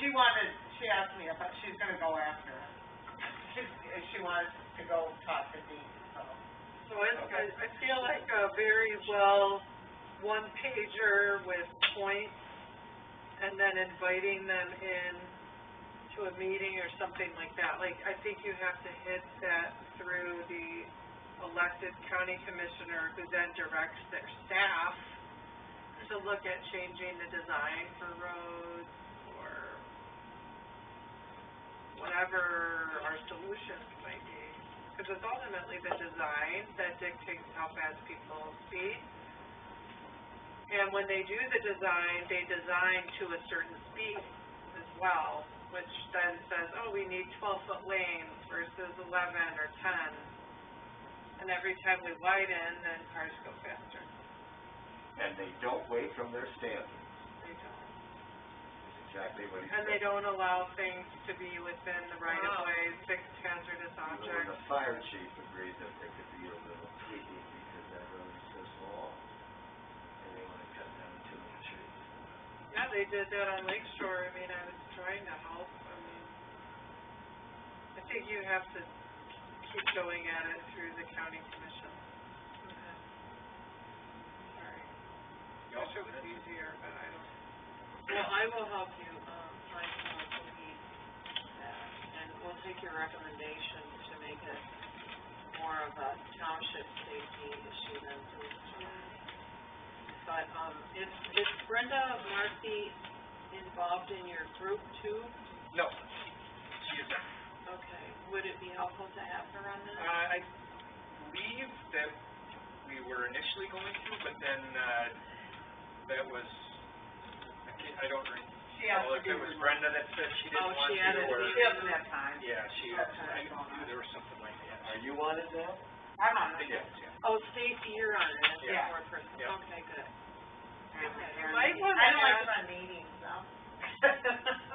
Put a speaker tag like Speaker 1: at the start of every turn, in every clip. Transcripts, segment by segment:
Speaker 1: she wanted, she asked me about, she's gonna go after him. She, she wants to go talk to Dean, so.
Speaker 2: So it's, I- I feel like a very well, one pager with points, and then inviting them in to a meeting or something like that. Like, I think you have to hit that through the elected county commissioner, who then directs their staff to look at changing the design for roads, or whatever our solutions might be. Because it's ultimately the design that dictates how fast people speed. And when they do the design, they design to a certain speed as well, which then says, oh, we need twelve-foot lanes versus eleven or ten. And every time we widen, then cars go faster.
Speaker 3: and they don't wait from their standards,
Speaker 2: They don't.
Speaker 3: is exactly what he
Speaker 2: And they
Speaker 3: said.
Speaker 2: don't allow things to be within the right-of-way, fixed hazardous
Speaker 3: Even
Speaker 2: objects.
Speaker 3: The fire chief agreed that there could be a little tweaking because that road is so small, and they wanna cut down too many trees.
Speaker 2: Yeah, they did that on Lake Shore, I mean, I was trying to help, I mean, I think you have to keep going at it through the county commission. Sorry, wish it was easier, but I don't.
Speaker 4: Well, I will help you, um, find someone to meet, uh, and we'll take your recommendation to make it more of a township safety issue than police department. But, um, is, is Brenda Marcy involved in your group too?
Speaker 5: No, she is not.
Speaker 4: Okay, would it be helpful to have her on this?
Speaker 5: Uh, I believe that we were initially going to, but then, uh, that was, I can't, I don't re-
Speaker 1: She asked
Speaker 5: recall
Speaker 1: to
Speaker 5: if
Speaker 1: be
Speaker 5: it Oh, was Brenda that said she
Speaker 4: Oh,
Speaker 5: didn't want
Speaker 4: she
Speaker 5: to,
Speaker 4: added me.
Speaker 5: or.
Speaker 1: She doesn't have time.
Speaker 5: Yeah, she,
Speaker 1: Okay.
Speaker 5: I knew there was something like that.
Speaker 3: Are you on it now?
Speaker 1: I'm on it.
Speaker 5: Yes, yeah.
Speaker 4: Oh, Stacy, you're on it, as
Speaker 1: Yeah.
Speaker 4: a fourth person,
Speaker 5: Yeah.
Speaker 4: okay, good.
Speaker 1: I
Speaker 2: Might wanna
Speaker 1: don't like
Speaker 2: add-
Speaker 1: my meetings, though.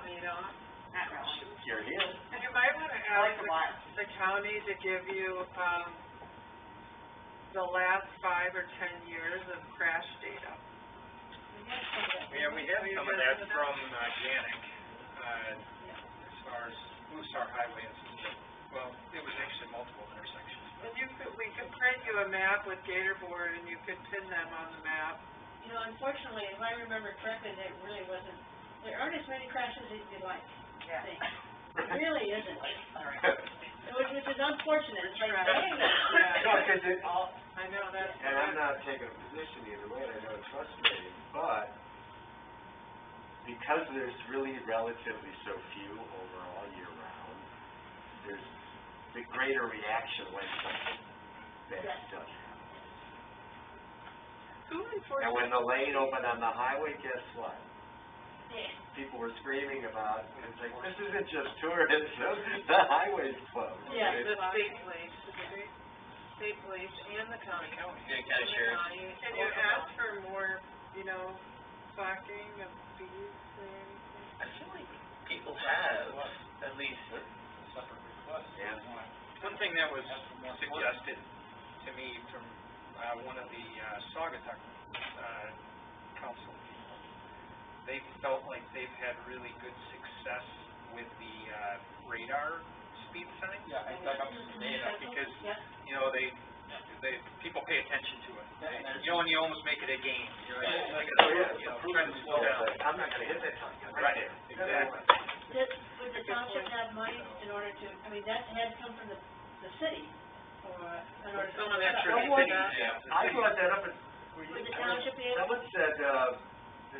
Speaker 4: You know,
Speaker 1: Not really.
Speaker 3: You're here.
Speaker 2: You might wanna
Speaker 1: I like
Speaker 2: ask
Speaker 1: to
Speaker 2: the
Speaker 1: watch.
Speaker 2: the county to give you, um, the last five or ten years of crash data.
Speaker 5: Yeah, we have some of that from, uh, Janik, uh, as far as Blue Star Highway and some, of the- well, it was actually multiple intersections, but.
Speaker 2: And you could, we could print you a map with Gator board and you could pin them on the map.
Speaker 6: You know, unfortunately, if I remember correctly, there really wasn't, there aren't as many crashes as you'd like,
Speaker 1: Yeah.
Speaker 6: think. It really isn't, which, which is unfortunate, it's like,
Speaker 2: Right.
Speaker 6: dang.
Speaker 3: No, 'cause it,
Speaker 2: I know, that's.
Speaker 3: and I'm not taking a position either way, and I don't trust me, but because there's really relatively so few overall year round, there's the greater reaction when something bad does happen.
Speaker 2: Who
Speaker 3: And
Speaker 2: enforces,
Speaker 3: when the lane opened on the highway, guess what?
Speaker 6: Yeah.
Speaker 3: People were screaming about, it. it's like, this isn't just tourism, the highway's closed.
Speaker 6: Yeah,
Speaker 3: It's-
Speaker 2: the state police, the state, state police and the county.
Speaker 5: Yeah, kind of shares.
Speaker 2: Can you ask for more, you know, clocking of fees or anything?
Speaker 7: I feel like people have, at least,
Speaker 3: Yeah.
Speaker 5: One thing that was suggested to me from, uh, one of the, uh, Saugatuck, uh, council people, they felt like they've had really good success with the, uh, radar speed sign.
Speaker 7: yeah, I dug up some data,
Speaker 5: Because,
Speaker 6: Yeah.
Speaker 5: you know, they, they, people pay attention to it.
Speaker 7: Yeah, and there's-
Speaker 5: You know, and you almost make it a game, you're like, like,
Speaker 3: Oh, yeah,
Speaker 5: you
Speaker 3: it's
Speaker 5: know,
Speaker 3: a proven
Speaker 5: trying to slow
Speaker 3: slow,
Speaker 5: down.
Speaker 3: like, I'm not gonna hit that time.
Speaker 5: Right, exactly.
Speaker 6: Did, would the township have money in order to, I mean, that had come from the, the city, or, in order to.
Speaker 5: Some of that's
Speaker 3: Someone-
Speaker 5: really big, yeah.
Speaker 3: I brought that up at, were you?
Speaker 6: Would the township be able,
Speaker 3: Someone said, uh,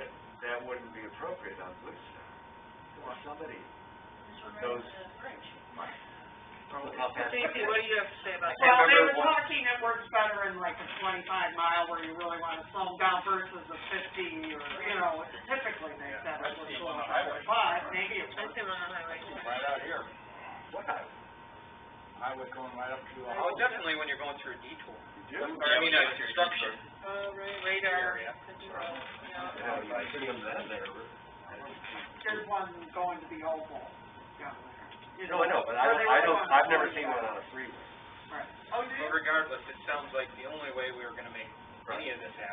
Speaker 3: that, that wouldn't be appropriate on Blue Star. Well, somebody,
Speaker 6: this one
Speaker 3: those-
Speaker 6: right, the bridge?
Speaker 3: probably how fast.
Speaker 2: Stacy, what do you have to say about that?
Speaker 1: Well, they
Speaker 3: remember
Speaker 1: were
Speaker 3: what-
Speaker 1: talking it works better in like a twenty-five mile where you really wanna slow down versus a fifty or, you know, typically they said it was a little better, but maybe it works.
Speaker 2: on the highway.
Speaker 7: right out here,
Speaker 3: What? You
Speaker 7: highway going right up to, uh,
Speaker 5: Oh, definitely when you're going through a detour,
Speaker 3: do?
Speaker 5: or I mean, a construction
Speaker 2: Oh, right.
Speaker 5: radar. Yeah.
Speaker 2: Control, yeah.
Speaker 3: Yeah, you see them then, they're, I don't.
Speaker 1: There's one going to the oval down there. You
Speaker 3: No, I know, but I
Speaker 1: where
Speaker 3: don't,
Speaker 1: they
Speaker 3: I
Speaker 1: were
Speaker 3: don't,
Speaker 1: going
Speaker 3: I've never
Speaker 1: 45.
Speaker 3: seen one on a freeway.
Speaker 1: Right. Oh,
Speaker 5: But regardless, it sounds like the only way we were gonna make any of this happen